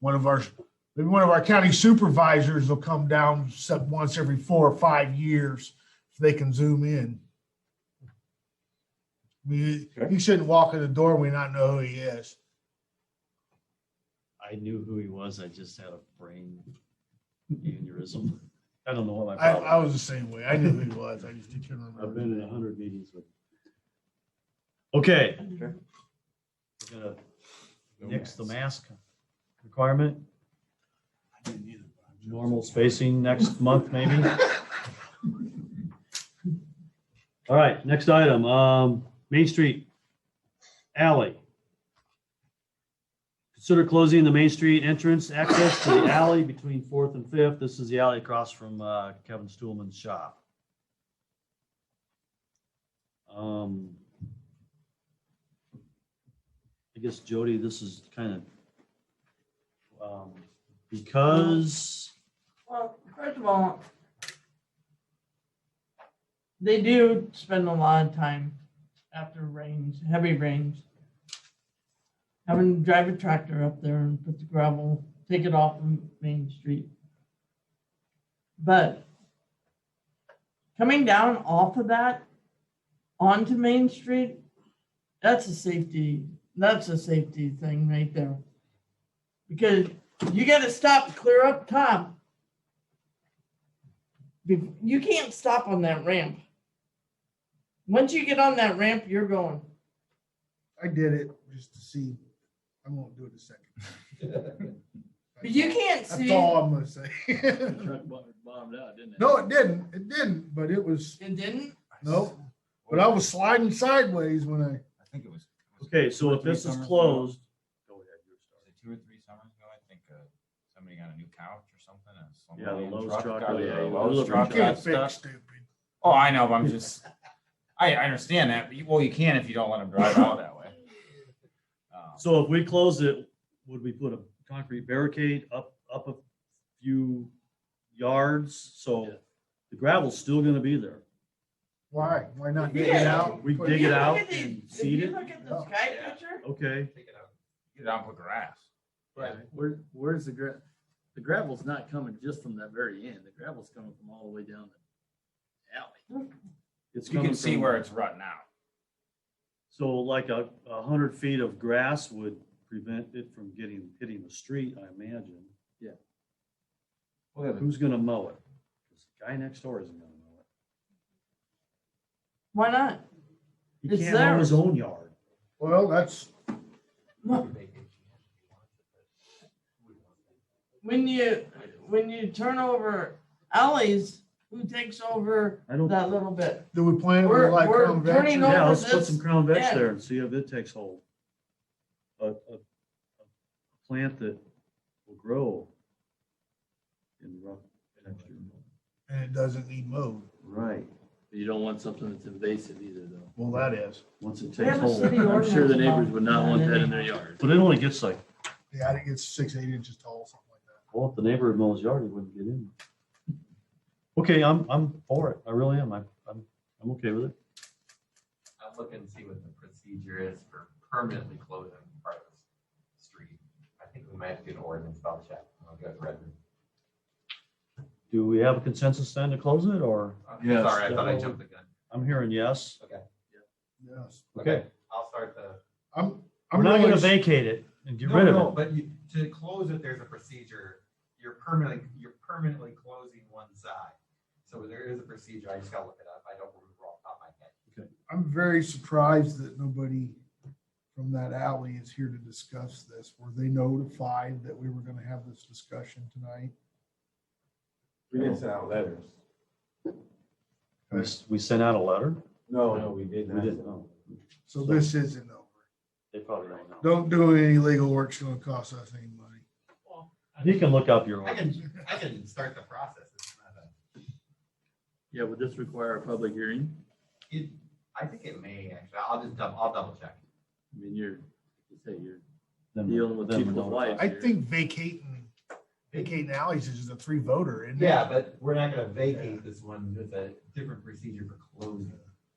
one of our, maybe one of our county supervisors will come down set once every four or five years so they can zoom in. I mean, Okay. he shouldn't walk in the door and we not know who he is. I knew who he was. I just had a brain aneurysm. I don't know what my I, I problem. was the same way. I knew who he was. I just didn't I've remember. been in a hundred meetings with. Okay. Sure. We're gonna nix the mask requirement, normal spacing next month maybe. All right, next item, um, Main Street alley. Consider closing the Main Street entrance access to the alley between Fourth and Fifth. This is the alley across from uh, Kevin Stuhlman's shop. Um, I guess Jody, this is kind of, um, because, Well, first of all, they do spend a lot of time after rains, heavy rains, having to drive a tractor up there and put the gravel, take it off of Main Street. But coming down off of that onto Main Street, that's a safety, that's a safety thing right there. Because you gotta stop clear up top be- you can't stop on that ramp. Once you get on that ramp, you're going. I did it just to see. I won't do it a second. But you can't That's see. all I'm gonna say. bombed out, didn't it? No, it didn't. It didn't, but it was, It didn't. nope. But I was sliding sideways when I, I think it was. was it okay, so two or if three this is summers ago? closed. Go ahead, you're Was it Two or three summers ago, I think, uh, somebody got a new couch or something. and some Yeah, the old Lowe's truck truck, got- oh, yeah, the you Lowe's look- truck you can't got fix stuck. stupid. Oh, I know, but I'm just, I, I understand that, but you, well, you can if you don't let them drive out that way. Um, So if we close it, would we put a concrete barricade up, up a few yards? So the gravel's still gonna be there. Why? Why not dig it Yeah. out? We Put- dig You it look out at the- and if seed you it? Oh, Look at the sky Yeah. picture. Okay, Take it out. Get it out with grass. Right, where, where's the gra, the gravel's not coming just from that very end, the gravel's coming from all the way down the alley. it's You coming can see from- where it's rutting out. So like a, a hundred feet of grass would prevent it from getting, hitting the street, I imagine. Well, Who's gonna mow it? 'Cause the Guy next door isn't gonna mow Why not? it. He It's can't mow his theirs. own yard. Well, that's, When you when you turn over alleys, who takes over I don't, that little bit? do we plan We're- to like we're come turning back? over- yeah, let's put this some crown veg end. there and see if it takes hold. A, a, a plant that will grow in rough texture. And it doesn't need mowed. Right, But You don't want something that's invasive either, though. Well, that is. once it We takes have a hold. city I'm sure the ordinance neighbors about would not want that in anyway. their yard. But it only gets like, Yeah, I think it's six, eight inches tall, something like that. well, if the neighbor had mows yard, it wouldn't get in. Okay, I'm, I'm for it. I really am. I, I'm, I'm okay with it. I'll look and see what the procedure is for permanently closing part of the street. I think we might have to do an ordinance, but I'll check. I'll go with Redmond. Do we have a consensus then to close it or? I'm Yes, Sorry, I thought I definitely. jumped the gun. I'm hearing yes. Yes. Okay. I'll start the. I'm, We're I'm not really, gonna s- vacate it and get No, rid no, of it. But you, to close it, there's a procedure. You're permanently, you're permanently closing one side. So there is a procedure. I just gotta look it up. I don't remember off the top of my head. I'm very surprised that nobody from that alley is here to discuss this. Were they notified that we were gonna have this discussion tonight? We didn't send out letters. We s- We sent out a letter. No, no, we did We not. didn't know. So this isn't over. They probably don't know. Don't do any legal work. It's gonna cost us any money. You can look up your. I can, I can start the process. It's not a- Yeah, would this require a public hearing? It, I think it may actually. I'll just double, I'll double check. I mean, you're, you say you're then- dealing with then we're people's notified. lives I here. think vacating, vacating alleys is just a three voter, isn't it? Yeah, but we're not gonna vacate this one with a different procedure for closing.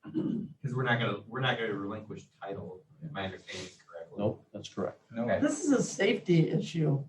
Because we're not gonna, we're not gonna relinquish title, if my understanding is correct. Nope, that's correct. No, Okay. This is a safety issue.